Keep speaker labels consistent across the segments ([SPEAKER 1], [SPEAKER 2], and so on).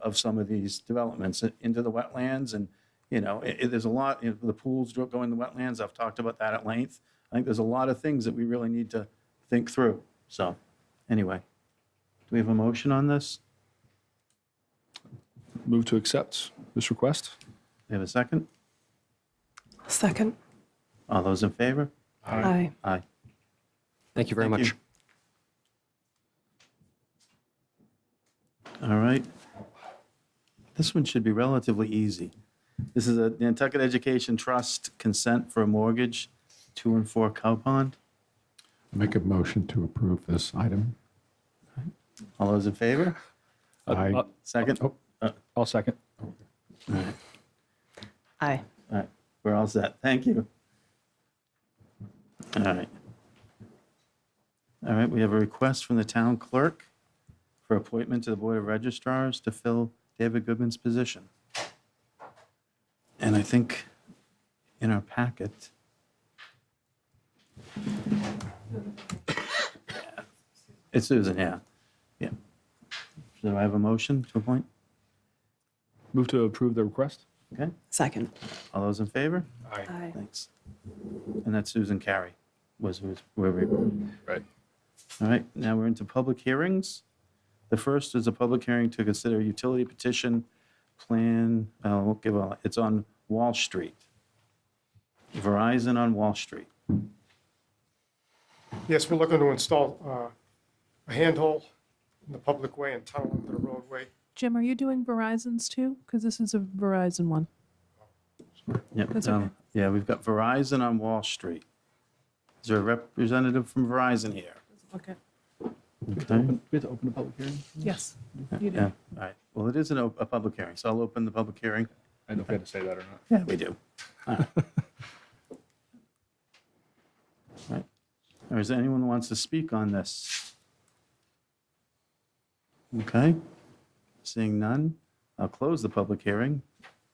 [SPEAKER 1] of some of these developments into the wetlands and, you know, i i- there's a lot, you know, the pools dro- go in the wetlands. I've talked about that at length. I think there's a lot of things that we really need to think through. So anyway, do we have a motion on this?
[SPEAKER 2] Move to accept this request.
[SPEAKER 1] Do we have a second?
[SPEAKER 3] Second.
[SPEAKER 1] All those in favor?
[SPEAKER 3] Aye.
[SPEAKER 1] Aye.
[SPEAKER 4] Thank you very
[SPEAKER 1] Thank
[SPEAKER 4] much.
[SPEAKER 1] All right. This one should be relatively easy. This is a Nantucket Education Trust consent for a mortgage, two and four Cow Pond.
[SPEAKER 5] Make a motion to approve this item.
[SPEAKER 1] All those in favor?
[SPEAKER 5] Aye.
[SPEAKER 2] Uh,
[SPEAKER 1] Second? All
[SPEAKER 5] Oh,
[SPEAKER 2] I'll second.
[SPEAKER 3] Aye.
[SPEAKER 1] right, we're all set. Thank you. All right. All right, we have a request from the town clerk for appointment to the Board of Registrars to fill David Goodman's position. And I think in our packet. It's Susan, yeah. Yeah. So I have a motion to appoint?
[SPEAKER 2] Move to approve the request.
[SPEAKER 1] Okay,
[SPEAKER 3] Second.
[SPEAKER 1] all those in favor?
[SPEAKER 3] Aye.
[SPEAKER 1] Thanks. And that's Susan Carey was who's where we were.
[SPEAKER 2] Right.
[SPEAKER 1] All right, now we're into public hearings. The first is a public hearing to consider utility petition plan, uh, we'll give a- it's on Wall Street. Verizon on Wall Street.
[SPEAKER 6] Yes, we're looking to install uh, a handhole in the public way and tunnel under the roadway.
[SPEAKER 7] Jim, are you doing Verizon's too? Because this is a Verizon one.
[SPEAKER 1] Yep.
[SPEAKER 7] That's
[SPEAKER 1] um,
[SPEAKER 7] okay.
[SPEAKER 1] Yeah, we've got Verizon on Wall Street. Is there a representative from Verizon here?
[SPEAKER 7] Okay.
[SPEAKER 1] Okay.
[SPEAKER 2] Do we have to open a public hearing?
[SPEAKER 7] Yes, you
[SPEAKER 1] Yeah,
[SPEAKER 7] do.
[SPEAKER 1] all right. Well, it is an op- a public hearing, so I'll open the public hearing.
[SPEAKER 2] I don't know if we had to say that or not.
[SPEAKER 1] Yeah, we do. All right. Or is there anyone who wants to speak on this? Okay. Seeing none, I'll close the public hearing.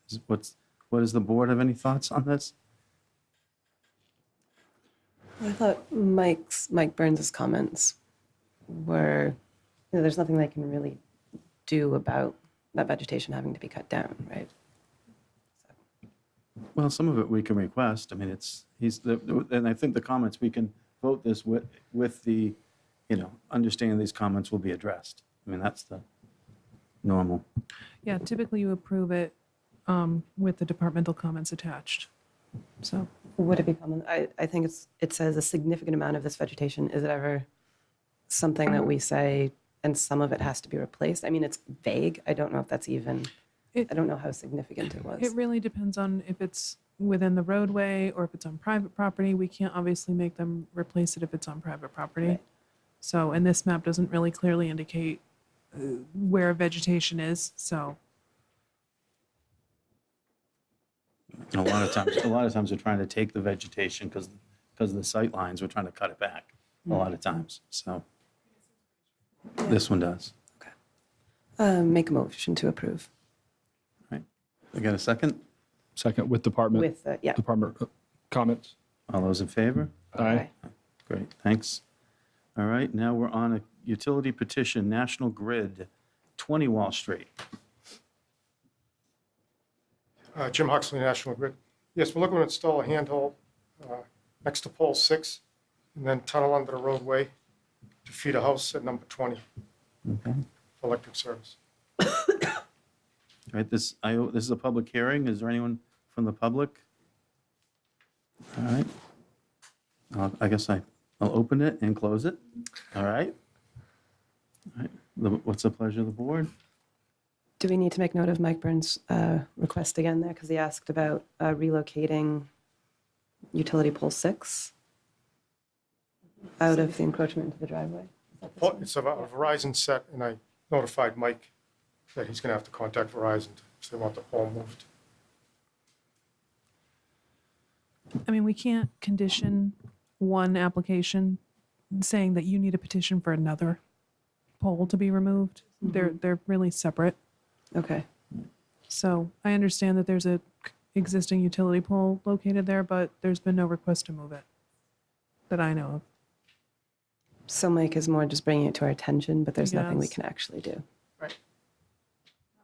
[SPEAKER 1] Is- What's, what is the board have any thoughts on this?
[SPEAKER 3] I thought Mike's, Mike Burns's comments were, you know, there's nothing they can really do about that vegetation having to be cut down, right?
[SPEAKER 1] Well, some of it we can request. I mean, it's, he's, the- and I think the comments, we can vote this with, with the, you know, understanding these comments will be addressed. I mean, that's the normal.
[SPEAKER 7] Yeah, typically you approve it um, with the departmental comments attached. So,
[SPEAKER 3] Would it be common? I, I think it's, it says a significant amount of this vegetation, is it ever something that we say, and some of it has to be replaced? I mean, it's vague. I don't know if that's even,
[SPEAKER 7] It-
[SPEAKER 3] I don't know how significant it was.
[SPEAKER 7] it really depends on if it's within the roadway or if it's on private property. We can't obviously make them replace it if it's on private property.
[SPEAKER 3] Right.
[SPEAKER 7] So, and this map doesn't really clearly indicate uh, where vegetation is, so.
[SPEAKER 1] And A lot of times, a lot of times we're trying to take the vegetation because, because of the sight lines, we're trying to cut it back a lot of times, so. This one does.
[SPEAKER 3] Uh, Make a motion to approve
[SPEAKER 1] We got a second?
[SPEAKER 2] Second with department.
[SPEAKER 3] with, the- yeah.
[SPEAKER 2] Department uh, comments.
[SPEAKER 1] All those in favor?
[SPEAKER 2] Aye.
[SPEAKER 1] Great, thanks. All right, now we're on a utility petition, National Grid, 20 Wall Street.
[SPEAKER 6] Uh, Jim Huxley, National Grid. Yes, we're looking to install a handhole uh, next to pole six and then tunnel under the roadway to feed a house at number 20
[SPEAKER 1] Okay.
[SPEAKER 6] for electric service.
[SPEAKER 1] All right, this, I, this is a public hearing. Is there anyone from the public? All right. I'll- I guess I, I'll open it and close it. All right. All right. The- What's the pleasure of the board?
[SPEAKER 3] Do we need to make note of Mike Burns' uh, request again there? Because he asked about uh, relocating utility pole six out of the encroachment into the driveway.
[SPEAKER 6] Well, It's a a Verizon set, and I notified Mike that he's going to have to contact Verizon if they want the pole moved.
[SPEAKER 7] I mean, we can't condition one application saying that you need a petition for another poll to be removed. They're, they're really separate.
[SPEAKER 3] Okay.
[SPEAKER 7] So I understand that there's a c- existing utility pole located there, but there's been no request to move it that I know of.
[SPEAKER 3] So Mike is more just bringing it to our attention, but there's nothing we
[SPEAKER 7] Yes.
[SPEAKER 3] can actually do.
[SPEAKER 7] Right.